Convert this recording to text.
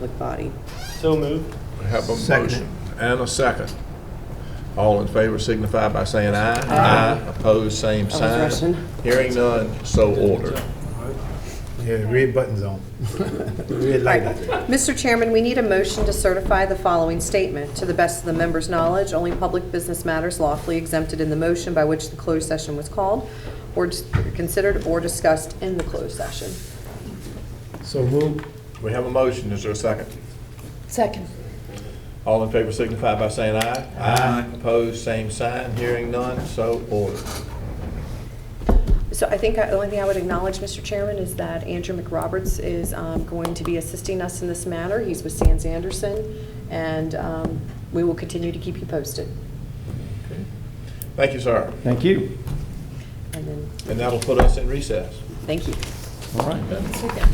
public body. So moved. I Have a Second. motion and a second. All in favor signify by saying aye. Aye. Opposed, same was sign. Russian. Hearing none, so ordered. Yeah, the red button's on. The red light. Right. Mr. Chairman, we need a motion to certify the following statement. To the best of the members' knowledge, only public business matters lawfully exempted in the motion by which the closed session was called or dis- considered or discussed in the closed session. So move. We have a motion, is there a second? Second. All in favor signify by saying aye. Aye. Opposed, same sign. Hearing none, so ordered. So I think I- the only thing I would acknowledge, Mr. Chairman, is that Andrew McRoberts is um, going to be assisting us in this matter. He's with Sands Anderson, and um, we will continue to keep you posted. Thank you, sir. Thank you. And then, And that'll put us in recess. thank you. All right.